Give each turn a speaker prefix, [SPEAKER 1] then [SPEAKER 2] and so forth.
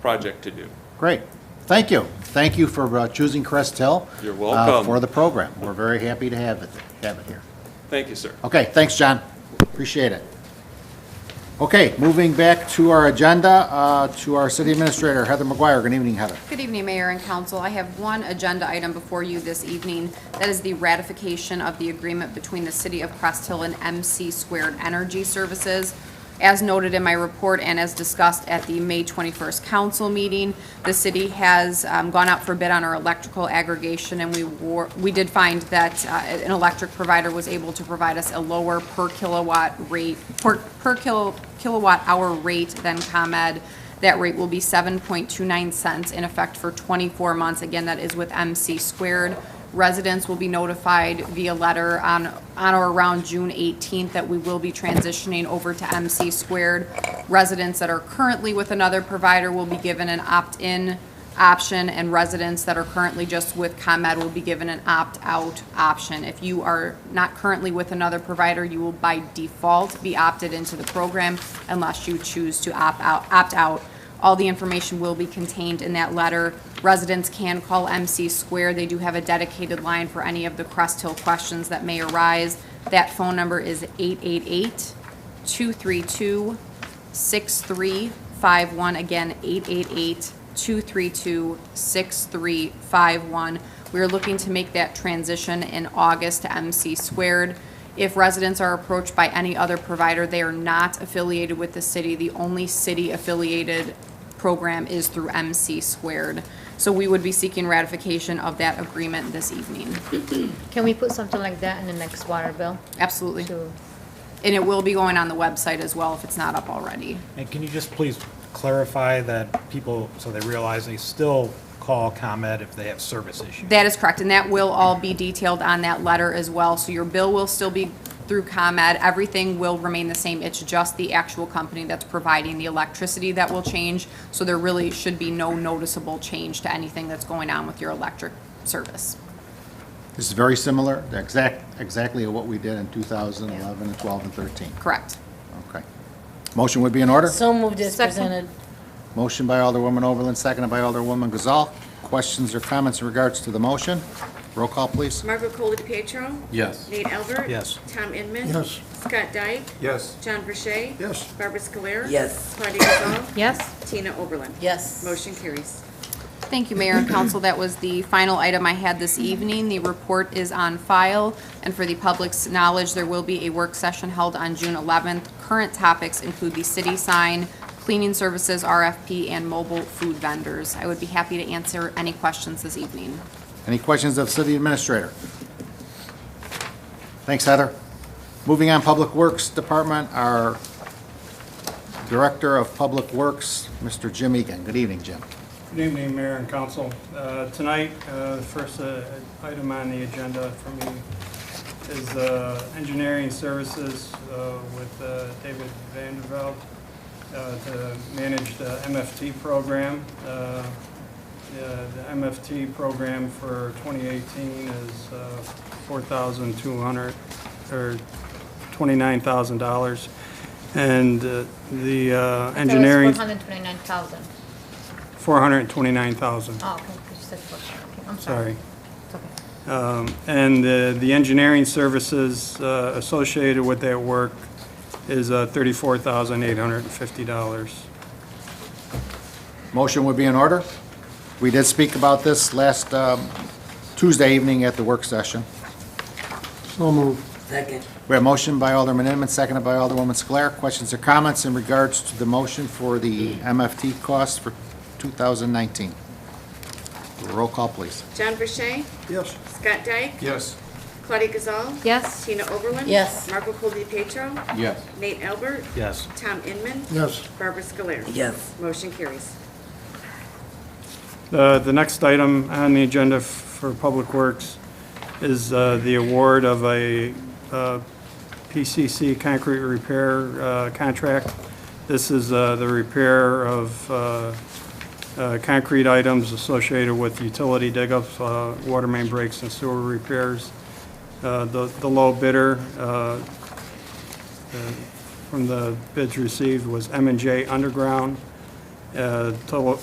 [SPEAKER 1] project to do.
[SPEAKER 2] Great. Thank you. Thank you for uh, choosing Crest Hill.
[SPEAKER 1] You're
[SPEAKER 2] uh,
[SPEAKER 1] welcome.
[SPEAKER 2] For the program. We're very happy to have it, have it here.
[SPEAKER 1] Thank you, sir.
[SPEAKER 2] Okay, thanks, John. Appreciate it. Okay, moving back to our agenda, uh, to our city administrator, Heather McGuire. Good evening, Heather.
[SPEAKER 3] Good evening, Mayor and Council. I have one agenda item before you this evening. That is the ratification of the agreement between the City of Crest Hill and MC Squared Energy Services. As noted in my report and as discussed at the May 21st council meeting, the city has um, gone out for bid on our electrical aggregation, and we were, we did find that uh, an electric provider was able to provide us a lower per kilowatt rate, per per kilo- kilowatt hour rate than ComEd. That rate will be 7.29 cents in effect for 24 months. Again, that is with MC squared. Residents will be notified via letter on, on or around June 18th that we will be transitioning over to MC squared. Residents that are currently with another provider will be given an opt-in option, and residents that are currently just with ComEd will be given an opt-out option. If you are not currently with another provider, you will by default be opted into the program unless you choose to opt out, opt out. All the information will be contained in that letter. Residents can call MC Square. They do have a dedicated line for any of the Crest Hill questions that may arise. That phone number is 888-232-6351. Again, 888-232-6351. We are looking to make that transition in August to MC squared. If residents are approached by any other provider, they are not affiliated with the city. The only city-affiliated program is through MC squared. So we would be seeking ratification of that agreement this evening.
[SPEAKER 4] Can we put something like that in the next water bill?
[SPEAKER 3] Absolutely.
[SPEAKER 4] to-
[SPEAKER 3] And it will be going on the website as well if it's not up already.
[SPEAKER 5] And can you just please clarify that people, so they realize they still call ComEd if they have service issues?
[SPEAKER 3] That is correct, and that will all be detailed on that letter as well. So your bill will still be through ComEd. Everything will remain the same. It's just the actual company that's providing the electricity that will change. So there really should be no noticeable change to anything that's going on with your electric service.
[SPEAKER 2] This is very similar, exact, exactly what we did in 2011 and 12 and 13.
[SPEAKER 3] Correct.
[SPEAKER 2] Okay. Motion would be in order?
[SPEAKER 6] So moved as
[SPEAKER 3] Second.
[SPEAKER 6] presented.
[SPEAKER 2] Motion by Alderwoman Overland, seconded by Alderwoman Gazal. Questions or comments in regards to the motion? Roll call, please.
[SPEAKER 7] Margaret Cole DePietro.
[SPEAKER 8] Yes.
[SPEAKER 7] Nate Albert.
[SPEAKER 5] Yes.
[SPEAKER 7] Tom Inman.
[SPEAKER 8] Yes.
[SPEAKER 7] Scott Dyke.
[SPEAKER 8] Yes.
[SPEAKER 7] John Verche.
[SPEAKER 8] Yes.
[SPEAKER 7] Barbara Scoler.
[SPEAKER 6] Yes.
[SPEAKER 7] Claudia Gazal.
[SPEAKER 4] Yes?
[SPEAKER 7] Tina Oberlin.
[SPEAKER 6] Yes.
[SPEAKER 7] Motion carries.
[SPEAKER 3] Thank you, Mayor and Council. That was the final item I had this evening. The report is on file, and for the public's knowledge, there will be a work session held on June 11th. Current topics include the city sign, cleaning services, RFP, and mobile food vendors. I would be happy to answer any questions this evening.
[SPEAKER 2] Any questions of City Administrator? Thanks, Heather. Moving on, Public Works Department, our Director of Public Works, Mr. Jim Egan. Good evening, Jim.
[SPEAKER 9] Good evening, Mayor and Council. Uh, Tonight, uh, the first uh, item on the agenda for me is uh, engineering services uh, with uh, David Vanderveld uh, to manage the MFT program. Uh, The uh, the MFT program for 2018 is uh, 4,200, or $29,000. And uh, the uh, engineering,
[SPEAKER 4] Four hundred twenty-nine thousand.
[SPEAKER 9] 429,000.
[SPEAKER 4] Oh, okay, 'cause you said four hundred, okay, I'm sorry.
[SPEAKER 9] Sorry.
[SPEAKER 4] It's okay.
[SPEAKER 9] Um, And the the engineering services uh, associated with that work is uh, $34,850.
[SPEAKER 2] Motion would be in order. We did speak about this last um, Tuesday evening at the work session.
[SPEAKER 6] Second.
[SPEAKER 2] We have a motion by Alderman Inman, seconded by Alderwoman Sclare. Questions or comments in regards to the motion for the MFT costs for 2019? Roll call, please.
[SPEAKER 7] John Verche.
[SPEAKER 8] Yes.
[SPEAKER 7] Scott Dyke.
[SPEAKER 8] Yes.
[SPEAKER 7] Claudia Gazal.
[SPEAKER 4] Yes?
[SPEAKER 7] Tina Oberlin.
[SPEAKER 6] Yes.
[SPEAKER 7] Margaret Cole DePietro.
[SPEAKER 8] Yes.
[SPEAKER 7] Nate Albert.
[SPEAKER 5] Yes.
[SPEAKER 7] Tom Inman.
[SPEAKER 8] Yes.
[SPEAKER 7] Barbara Scoler.
[SPEAKER 6] Yes.
[SPEAKER 7] Motion carries.
[SPEAKER 9] The Uh, the next item on the agenda f- for Public Works is uh, the award of a uh, PCC concrete repair uh, contract. This is uh, the repair of uh, uh, concrete items associated with utility dig-ups, uh, water main breaks, and sewer repairs. Uh, The the low bidder uh, from the bids received was m and J Underground. Uh, Total